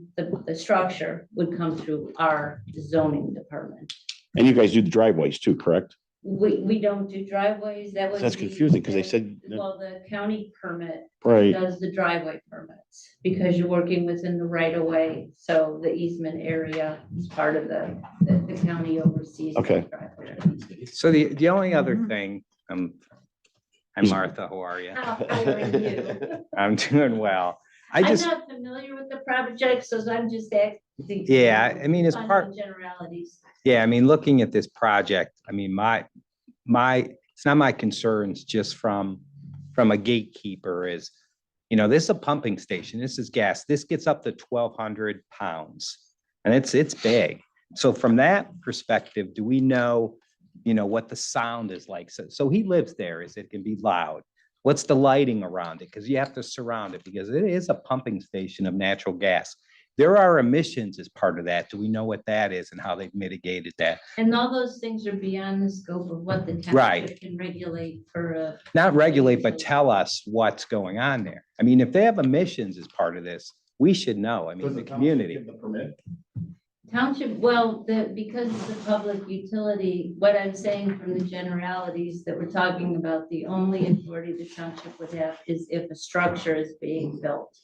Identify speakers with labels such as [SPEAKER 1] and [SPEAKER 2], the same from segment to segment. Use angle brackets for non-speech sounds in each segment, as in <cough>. [SPEAKER 1] um, the structure would come through our zoning department.
[SPEAKER 2] And you guys do the driveways too, correct?
[SPEAKER 1] We, we don't do driveways, that was.
[SPEAKER 2] That's confusing because they said,
[SPEAKER 1] Well, the county permit
[SPEAKER 2] right,
[SPEAKER 1] does the driveway permits, because you're working within the right of way, so the easement area is part of the, that the county oversees. the
[SPEAKER 2] Okay.
[SPEAKER 1] driveway.
[SPEAKER 3] So the, the only other
[SPEAKER 4] Mhm.
[SPEAKER 3] thing, um, I'm
[SPEAKER 2] Is-
[SPEAKER 3] Martha, how are you?
[SPEAKER 1] How
[SPEAKER 3] <laughs>
[SPEAKER 1] are you?
[SPEAKER 3] I'm <laughs> doing well. I
[SPEAKER 1] I'm
[SPEAKER 3] just,
[SPEAKER 1] not familiar with the project, so I'm just asking.
[SPEAKER 3] yeah, I mean, as
[SPEAKER 1] on
[SPEAKER 3] part,
[SPEAKER 1] the Generalities.
[SPEAKER 3] yeah, I mean, looking at this project, I mean, my, my, it's not my concerns just from, from a gatekeeper is, you know, this is a pumping station, this is gas, this gets up to twelve hundred pounds. And it's, it's big. So from that perspective, do we know, you know, what the sound is like? So, so he lives there, is it can be loud? What's the lighting around it? Because you have to surround it, because it is a pumping station of natural gas. There are emissions as part of that. Do we know what that is and how they've mitigated that?
[SPEAKER 1] And all those things are beyond the scope of what the
[SPEAKER 3] Right.
[SPEAKER 1] township can regulate for a.
[SPEAKER 3] not regulate, but tell us what's going on there. I mean, if they have emissions as part of this, we should know. I mean, the community.
[SPEAKER 1] Township, well, the, because it's a public utility, what I'm saying from the generalities that we're talking about, the only authority the township would have is if a structure is being built.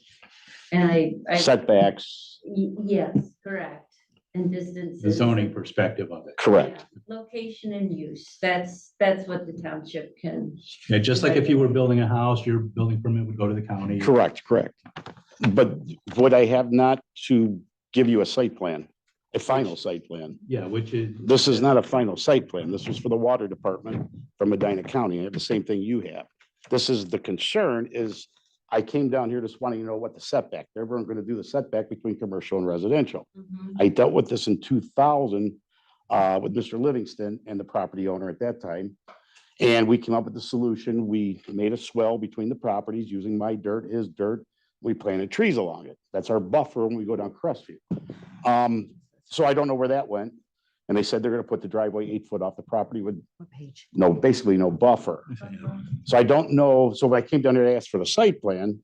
[SPEAKER 1] And I, I, y-
[SPEAKER 2] <laughs> setbacks,
[SPEAKER 1] yes, correct, and distances.
[SPEAKER 5] the zoning perspective of it.
[SPEAKER 2] correct.
[SPEAKER 1] Yeah, Location and use, that's, that's what the township can,
[SPEAKER 5] Yeah, just like if you were building a house, your building permit would go to the county.
[SPEAKER 2] Correct, correct. But what I have not to give you a site plan, a final site plan.
[SPEAKER 5] Yeah, which is.
[SPEAKER 2] This is not a final site plan. This was for the water department from Medina County. I have the same thing you have. This is, the concern is, I came down here just wanting to know what the setback, they were gonna do the setback between commercial and residential.
[SPEAKER 1] Mhm.
[SPEAKER 2] I dealt with this in two thousand uh, with Mr. Livingston and the property owner at that time. And we came up with the solution. We made a swell between the properties using my dirt, his dirt. We planted trees along it. That's our buffer when we go down Crestview. Um, so I don't know where that went. And they said they're gonna put the driveway eight foot off the property with
[SPEAKER 4] What page?
[SPEAKER 2] no, basically no buffer. So I don't know, so when I came down here to ask for the site plan,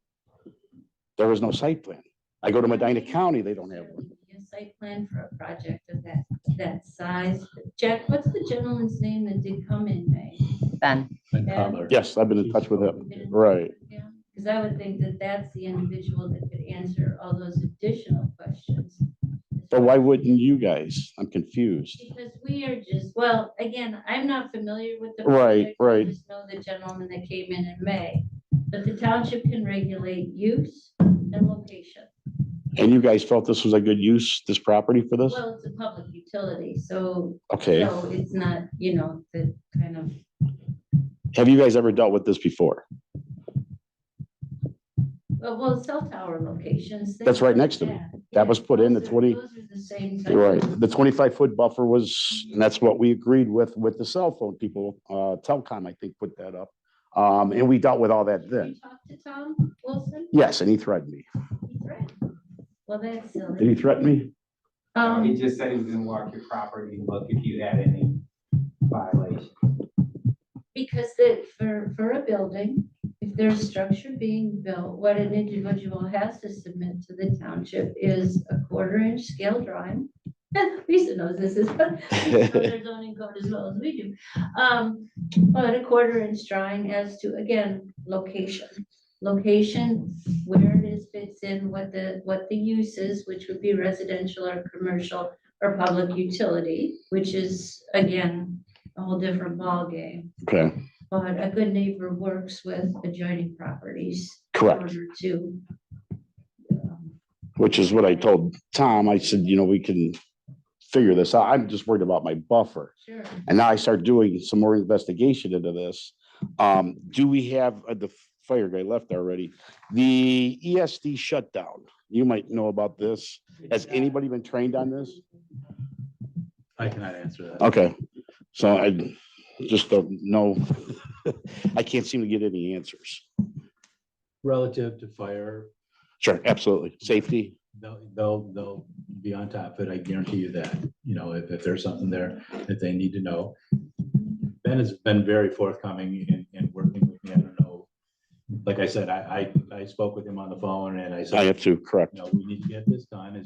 [SPEAKER 2] there was no site plan. I go to Medina County, they don't have one.
[SPEAKER 1] A site plan for a project of that, that size. Jack, what's the gentleman's name that did come in May?
[SPEAKER 4] Ben.
[SPEAKER 5] And color.
[SPEAKER 2] Yes, I've been in touch with him. Right.
[SPEAKER 1] Because I would think that that's the individual that could answer all those additional questions.
[SPEAKER 2] So why wouldn't you guys? I'm confused.
[SPEAKER 1] Because we are just, well, again, I'm not familiar with the.
[SPEAKER 2] Right,
[SPEAKER 1] project. I
[SPEAKER 2] right.
[SPEAKER 1] Just know the gentleman that came in in May, but the township can regulate use and location.
[SPEAKER 2] And you guys felt this was a good use, this property for this?
[SPEAKER 1] Well, it's a public utility, so,
[SPEAKER 2] Okay.
[SPEAKER 1] so it's not, you know, the kind of
[SPEAKER 2] Have you guys ever dealt with this before?
[SPEAKER 1] Uh, Well, well, cell tower locations.
[SPEAKER 2] That's
[SPEAKER 1] things
[SPEAKER 2] right
[SPEAKER 1] like
[SPEAKER 2] next to me. That was put in the
[SPEAKER 1] Those are-
[SPEAKER 2] 20
[SPEAKER 1] Those are the same. type
[SPEAKER 2] You're
[SPEAKER 1] of-
[SPEAKER 2] right. The twenty-five foot buffer was, and that's what we agreed with, with the cell phone people, uh, Telcom, I think, put that up. Um, and we dealt with all that
[SPEAKER 1] You
[SPEAKER 2] then.
[SPEAKER 1] talked to Tom Wilson?
[SPEAKER 2] Yes, and he threatened me.
[SPEAKER 1] He's right. Well, that's
[SPEAKER 2] Did he
[SPEAKER 1] silly.
[SPEAKER 2] threaten me?
[SPEAKER 6] Uh, He
[SPEAKER 1] Um,
[SPEAKER 6] just said he was gonna walk your property and look if you had any violations.
[SPEAKER 1] because the, for, for a building, if there's a structure being built, what an individual has to submit to the township is a quarter inch scale drawing. <laughs> Lisa knows this is, <laughs> but she knows their zoning code as well as we do. Um, but a quarter inch drawing as to, again, location. Location, where it is fits in, what the, what the use is, which would be residential or commercial or public utility, which is, again, a whole different ballgame.
[SPEAKER 2] Okay,
[SPEAKER 1] But a good neighbor works with adjoining properties. in
[SPEAKER 2] correct.
[SPEAKER 1] order To. um,
[SPEAKER 2] Which is what I told Tom. I said, you know, we can figure this out. I'm just worried about my buffer.
[SPEAKER 1] Sure.
[SPEAKER 2] And now I start doing some more investigation into this. Um, do we have, uh, the fire guy left already, the ESD shutdown? You might know about this. Has anybody been trained on this?
[SPEAKER 5] I cannot answer that.
[SPEAKER 2] Okay, so I just don't know. I can't seem to get any answers.
[SPEAKER 5] Relative to fire,
[SPEAKER 2] Sure, absolutely. Safety,
[SPEAKER 5] they'll, they'll, they'll be on top of it. I guarantee you that. You know, if, if there's something there that they need to know. Ben has been very forthcoming in, in working with me. I don't know. Like I said, I, I, I spoke with him on the phone and I
[SPEAKER 2] I
[SPEAKER 5] said,
[SPEAKER 2] have to, correct.
[SPEAKER 5] you know, we need to get this done as